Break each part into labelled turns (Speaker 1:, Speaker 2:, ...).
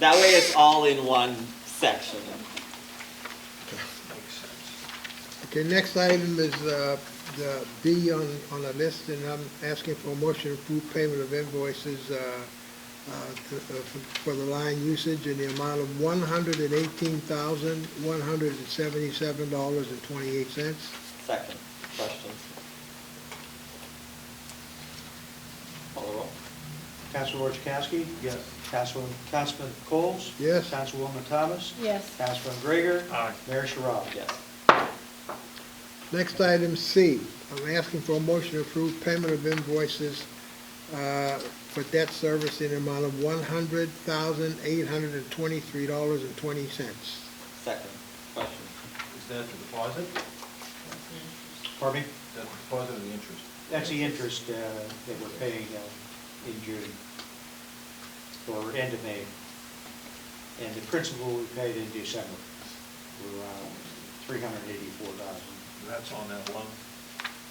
Speaker 1: That way it's all in one section.
Speaker 2: Okay, next item is uh, the B on, on the list, and I'm asking for a motion to approve payment of invoices uh, uh, to- uh, for for the line usage in the amount of one hundred and eighteen thousand, one hundred and seventy-seven dollars and twenty-eight cents.
Speaker 1: Second, questions? Call the roll.
Speaker 3: Councilor Chakowski? Yes. Councilman, Councilman Coles?
Speaker 2: Yes.
Speaker 3: Councilwoman Thomas?
Speaker 4: Yes.
Speaker 3: Councilman Gregor? Aye. Mayor Sherrod?
Speaker 1: Yes.
Speaker 2: Next item C, I'm asking for a motion to approve payment of invoices uh, for debt service in the amount of one hundred thousand, eight hundred and twenty-three dollars and twenty cents.
Speaker 1: Second, questions?
Speaker 5: Is that the deposit? Is
Speaker 3: Pardon me?
Speaker 5: that the deposit or the interest?
Speaker 3: That's the interest uh, that we're paying uh, in June, or end of May. And the principal we paid in December, were around three hundred and eighty-four thousand.
Speaker 5: That's on that loan?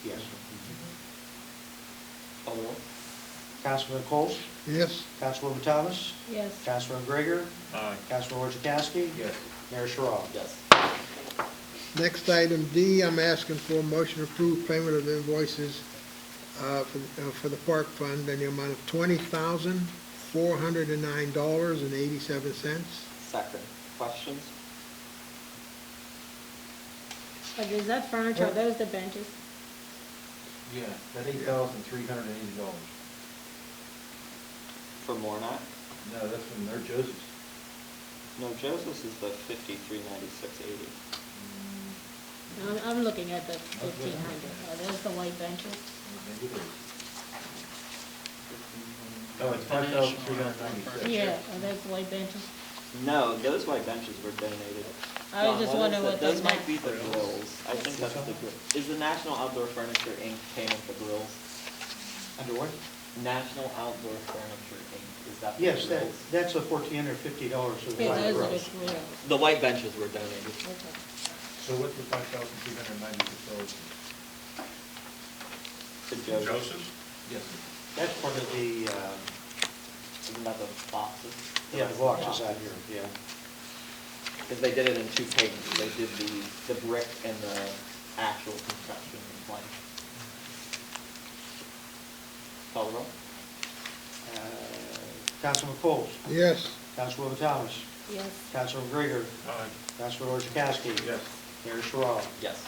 Speaker 3: Yes.
Speaker 1: Call the roll.
Speaker 3: Councilman Coles?
Speaker 2: Yes?
Speaker 3: Councilwoman Thomas?
Speaker 4: Yes.
Speaker 3: Councilman Gregor?
Speaker 5: Aye.
Speaker 3: Councilor Chakowski?
Speaker 5: Yes.
Speaker 3: Mayor Sherrod?
Speaker 1: Yes.
Speaker 2: Next item D, I'm asking for a motion to approve payment of invoices uh, for uh, for the park fund in the amount of twenty thousand, four hundred and nine dollars and eighty-seven cents.
Speaker 1: Second, questions?
Speaker 4: Like, is that furniture, are those the benches?
Speaker 5: Yeah, that eight thousand three hundred and eighty dollars.
Speaker 1: For Mornat?
Speaker 5: No, that's from their Joseph's.
Speaker 1: No, Joseph's is the fifty-three ninety-six eighty.
Speaker 4: I'm, I'm looking at the fifteen hundred, are those the white benches?
Speaker 5: Maybe it is. Oh, it's five thousand three hundred ninety-six.
Speaker 4: Yeah, are those the white benches?
Speaker 1: No, those white benches were donated.
Speaker 4: I
Speaker 1: John,
Speaker 4: was just
Speaker 1: is
Speaker 4: wondering
Speaker 1: that?
Speaker 4: what
Speaker 1: Those
Speaker 4: they
Speaker 1: might be
Speaker 4: meant.
Speaker 1: the grills. I think that's the grill. Is the National Outdoor Furniture Inc. payment the grills?
Speaker 3: Under what?
Speaker 1: National Outdoor Furniture Inc., is that the
Speaker 3: Yes,
Speaker 1: grills?
Speaker 3: that, that's the fourteen hundred fifty dollars of
Speaker 4: Yeah,
Speaker 3: the
Speaker 4: those are the
Speaker 3: gross.
Speaker 4: grills.
Speaker 1: The white benches were donated.
Speaker 4: Okay.
Speaker 5: So what's the five thousand three hundred ninety-six dollars?
Speaker 1: To Joseph's.
Speaker 5: Yes.
Speaker 3: That's part of the, um,
Speaker 1: Isn't that the boxes?
Speaker 3: yeah, the boxes out here, yeah.
Speaker 1: Because they did it in two payments. They did the, the brick and the actual construction in one. Call the roll?
Speaker 3: Uh, Councilman Coles?
Speaker 2: Yes.
Speaker 3: Councilwoman Thomas?
Speaker 4: Yes.
Speaker 3: Councilman Gregor?
Speaker 5: Aye.
Speaker 3: Councilor Chakowski?
Speaker 5: Yes.
Speaker 3: Mayor Sherrod?
Speaker 1: Yes.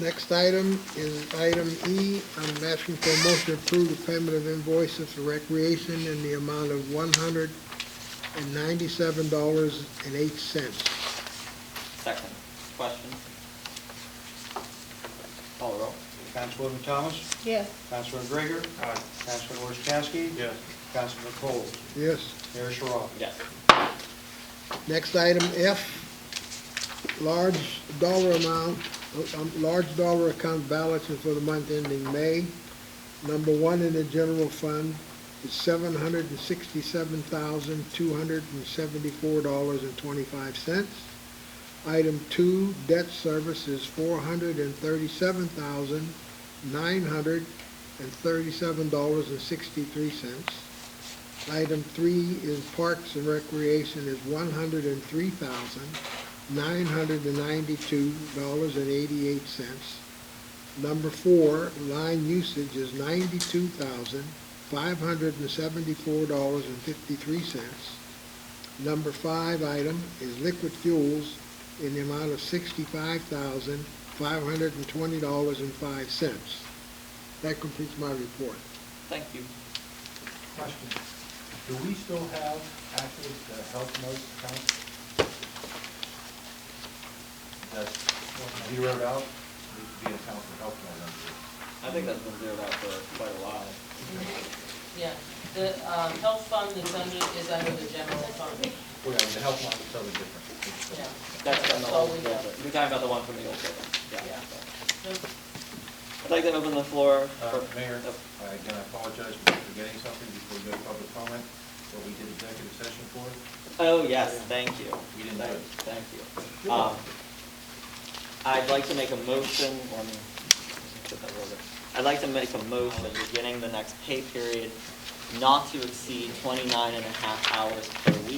Speaker 2: Next item is item E, I'm asking for a motion to approve the payment of invoices for recreation in the amount of one hundred and ninety-seven dollars and eight cents.
Speaker 1: Second. Questions? Call the roll?
Speaker 3: Councilwoman Thomas?
Speaker 4: Yes.
Speaker 3: Councilor Gregor?
Speaker 5: Aye.
Speaker 3: Councilor Chakowski?
Speaker 5: Yes.
Speaker 3: Councilman Coles?
Speaker 2: Yes?
Speaker 3: Mayor Sherrod?
Speaker 1: Yes.
Speaker 2: Next item, F, large dollar amount, um, large dollar account balances for the month ending May. Number one in the general fund is seven hundred and sixty-seven thousand, two hundred and seventy-four dollars and twenty-five cents. Item two, debt service is four hundred and thirty-seven thousand, nine hundred and thirty-seven dollars and sixty-three cents. Item three is Parks and Recreation is one hundred and three thousand, nine hundred and ninety-two dollars and eighty-eight cents. Number four, line usage is ninety-two thousand, five hundred and seventy-four dollars and fifty-three cents. Number five item is liquid fuels in the amount of sixty-five thousand, five hundred and twenty dollars and five cents. That completes my report.
Speaker 1: Thank you.
Speaker 5: Question, do we still have active uh, health notes account? That's zeroed out, needs to be an account for health note.
Speaker 1: I think that's been zeroed out for quite a while.
Speaker 6: Yeah, the um, health fund is under, is under the general fund.
Speaker 5: Well, yeah, the health note is totally different.
Speaker 6: Yeah.
Speaker 1: That's from the
Speaker 6: all
Speaker 1: old
Speaker 6: we
Speaker 1: building.
Speaker 6: have.
Speaker 1: You're talking about the one from the old building.
Speaker 6: Yeah.
Speaker 1: I'd like to open the floor for...
Speaker 5: Uh, Mayor,
Speaker 1: Oh,
Speaker 5: I- again, I apologize for forgetting something before we go to public comment, but we did executive session for it.
Speaker 1: Oh, yes, thank you.
Speaker 5: We didn't do it.
Speaker 1: Thank you. Um, I'd like to make a motion, let me put that over. I'd like to make a motion, beginning the next pay period, not to exceed 29 and a half hours per week.